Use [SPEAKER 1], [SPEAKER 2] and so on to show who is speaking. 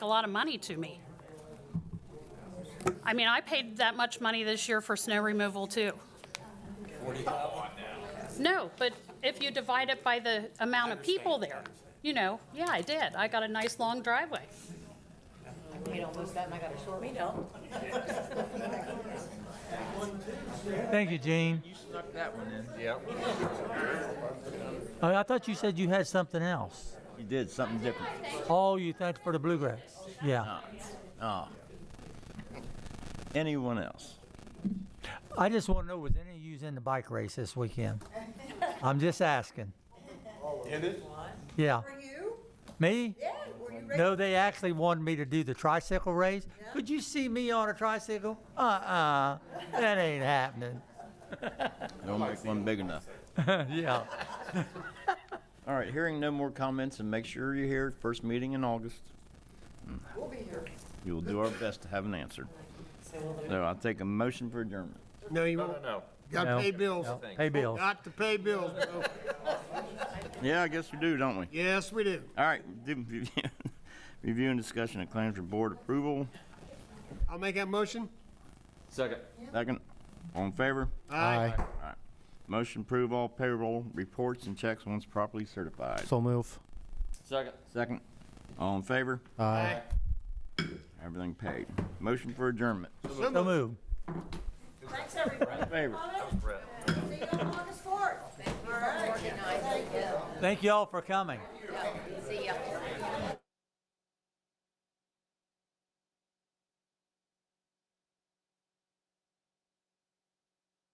[SPEAKER 1] a lot of money to me. I mean, I paid that much money this year for snow removal, too. No, but if you divide it by the amount of people there, you know, yeah, I did. I got a nice long driveway.
[SPEAKER 2] paid almost that and I got a short. We know.
[SPEAKER 3] Thank you, Gene.
[SPEAKER 4] Snuck that one in. Yep.
[SPEAKER 3] Oh, I, I thought you said you had something else.
[SPEAKER 4] You did something different.
[SPEAKER 3] Oh, you thanked for the bluegrass. Yeah.
[SPEAKER 4] Oh. Anyone else?
[SPEAKER 3] I just want to know was any of you in the bike race this weekend? I'm just asking. In it? Yeah.
[SPEAKER 5] Were you?
[SPEAKER 3] Me?
[SPEAKER 5] Yeah, were you ready?
[SPEAKER 3] No, they actually wanted me to do the tricycle race. Could you see me on a tricycle? Uh uh That ain't happening.
[SPEAKER 4] Don't make one big enough.
[SPEAKER 3] yeah.
[SPEAKER 4] All right, hearing no more comments, and make sure you're here, first meeting in August.
[SPEAKER 5] We'll be here.
[SPEAKER 4] We will do our best to have an answer. So I'll take a motion for adjournment.
[SPEAKER 6] No, you won't.
[SPEAKER 7] No.
[SPEAKER 6] Got to
[SPEAKER 3] No.
[SPEAKER 6] pay bills.
[SPEAKER 3] No. Hey, Bill.
[SPEAKER 6] Got to pay bills. Bill.
[SPEAKER 4] Yeah, I guess we do, don't we?
[SPEAKER 6] Yes, we do.
[SPEAKER 4] All right, do- review and discussion of claims for board approval.
[SPEAKER 6] I'll make that motion.
[SPEAKER 7] Second.
[SPEAKER 4] Second, all in favor?
[SPEAKER 6] Aye.
[SPEAKER 4] Motion approve all payroll reports and checks once properly certified.
[SPEAKER 8] So move.
[SPEAKER 7] Second.
[SPEAKER 4] Second, all in favor?
[SPEAKER 8] Aye.
[SPEAKER 6] Aye.
[SPEAKER 4] Everything paid. Motion for adjournment.
[SPEAKER 3] So move.
[SPEAKER 5] Thanks, everybody.
[SPEAKER 4] Favor.
[SPEAKER 5] See you on August fourth. All right.
[SPEAKER 3] Thank you all for coming.